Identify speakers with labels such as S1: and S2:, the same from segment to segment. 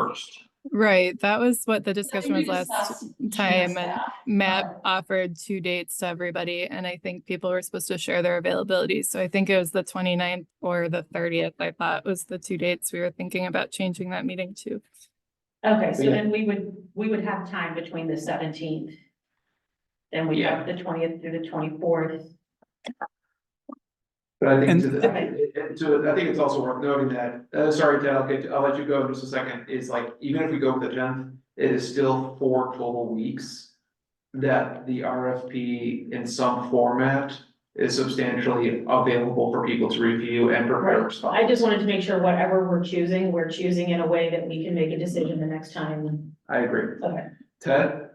S1: first.
S2: Right, that was what the discussion was
S3: We
S2: last
S3: discussed GS
S2: time, and
S3: that.
S2: Matt offered two dates to everybody, and I think people were supposed to share their availability, so I think it was the 29th or the thirtieth, I thought was the two dates we were thinking about changing that meeting to.
S3: Okay, so
S1: Yeah.
S3: then we would, we would have time between the seventeenth. Then we have the twentieth through the twenty-fourth.
S1: But I think,
S4: And-
S1: to the- and to, I think it's also worth noting that, uh, sorry, Ted, I'll get, I'll let you go in just a second, is like, even if we go with the tenth, it is still four total weeks. That the RFP in some format is substantially available for people to review and prepare
S3: Right. I
S1: response.
S3: just wanted to make sure whatever we're choosing, we're choosing in a way that we can make a decision the next time.
S1: I agree.
S3: Okay.
S1: Ted,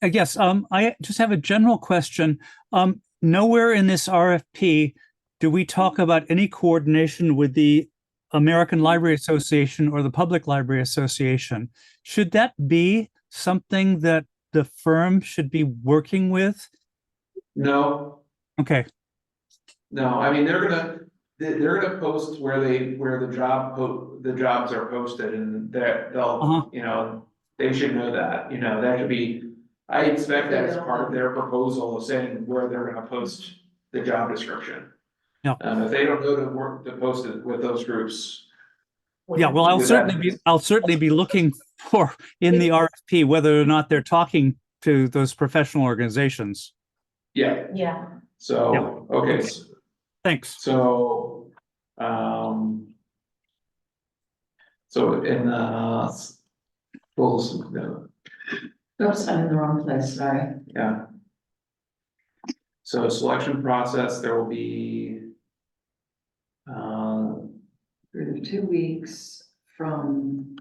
S4: I guess um, I just have a general question. Um, nowhere in this RFP do we talk about any coordination with the American Library Association or the Public Library Association. Should that be something that the firm should be working with?
S1: no,
S4: Okay,
S1: No, I mean, they're gonna, they- they're gonna post where they, where the job, po- the jobs are posted and that
S4: Uh-huh.
S1: they'll, you know, they should know that, you know, that should be, I expect that as part of their proposal of saying where they're gonna post the job description.
S4: Yeah.
S1: Um, if they don't know to work, to post it with those groups,
S4: yeah, well, I'll
S1: Do that.
S4: certainly be, I'll certainly be looking for in the RFP whether or not they're talking to those professional organizations.
S1: yeah,
S3: Yeah,
S1: so, okay, s-
S4: Thanks.
S1: so, um. So in, uh, s- goals, no,
S5: Oops, I'm in the wrong place, sorry.
S1: Yeah. So selection process, there will be. Uh,
S5: Through the two weeks from,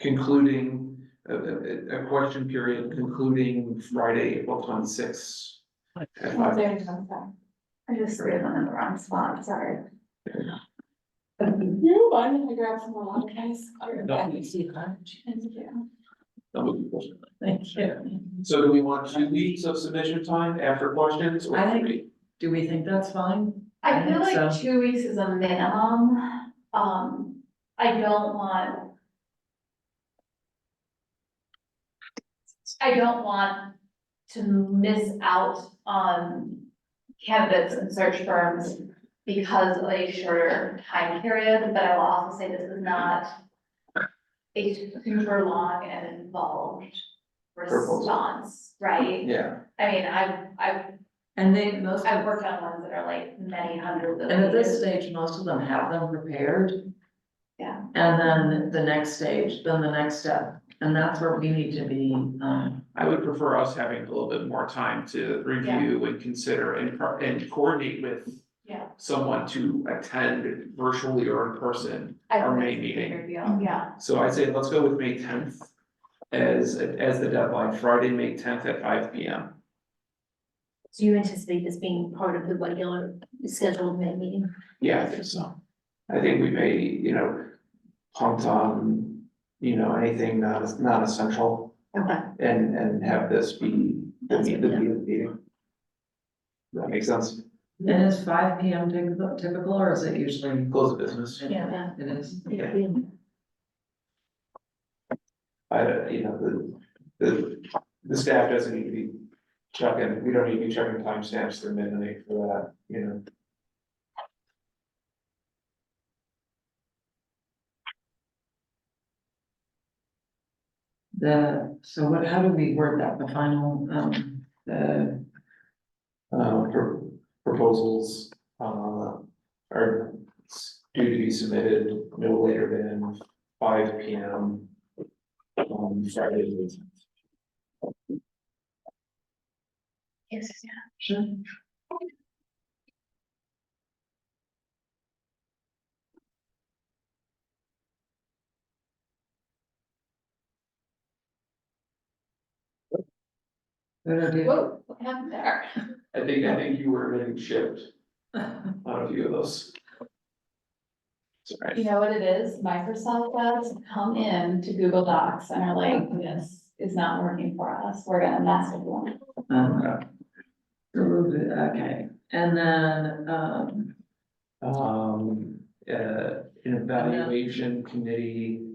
S1: concluding, a, a, a question period concluding Friday, April twenty-sixth.
S4: Right.
S6: I just threw them in the wrong spot, sorry.
S5: um,
S6: You're fine, I grabbed some more water, guys. Thank you.
S3: thank you.
S1: So do we want two weeks of submission time after questions or
S5: I think-
S1: three?
S5: do we think that's fine?
S6: I feel
S5: think
S6: like
S5: so.
S6: two weeks is a minimum, um, I don't want. I don't want to miss out on candidates and search firms because of a shorter time period, but I will also say this is not a super long and involved
S1: Proposal.
S6: response, right?
S1: Yeah,
S6: I mean, I've, I've,
S5: And they, most,
S6: I've
S5: and
S6: worked on ones that are like many hundreds of
S5: at
S6: pages.
S5: this stage, most of them have them prepared.
S6: Yeah.
S5: And then the next stage, then the next step, and that's where we need to be, um,
S1: I would prefer us having a little bit more time to review and consider and, pro- and coordinate with.
S6: Yeah.
S1: Someone to attend virtually or in person.
S6: I
S1: our
S6: think
S1: May
S6: it's a
S1: meeting.
S6: bigger deal, Yeah,
S1: So I'd say let's go with May tenth as, as the deadline, Friday, May tenth at five P M.
S7: Do you anticipate this being part of the regular scheduled May meeting?
S1: Yeah, I think so. I think we may, you know, punt on, you know, anything not, not essential
S7: Okay.
S1: and, and have this be, the
S7: That's
S1: meet-
S7: good,
S1: the
S7: yeah.
S1: meeting. meeting. That makes sense.
S5: and is five P M typical, typical, or is it usually?
S1: Close of business.
S3: Yeah.
S5: It is.
S1: Yeah. I, don't- you know, the, the, the staff doesn't need to be checking, we don't need to be checking timestamps through midnight for that, you know.
S5: The, so what, how do we word that, the final, um, the,
S1: uh, pro- proposals, uh, are due to be submitted no later than five P M. On Friday. the 18th.
S7: Yes.
S5: sure? Good idea.
S6: whoa, what happened there?
S1: I think, I think you were getting shipped on a few of those.
S6: You
S1: Sorry,
S6: know what it is, Microsoft does come in to Google Docs and are like, this is not working for us, we're gonna mess with you.
S5: Um, remove it, Okay, and then, um,
S1: um, uh, an evaluation committee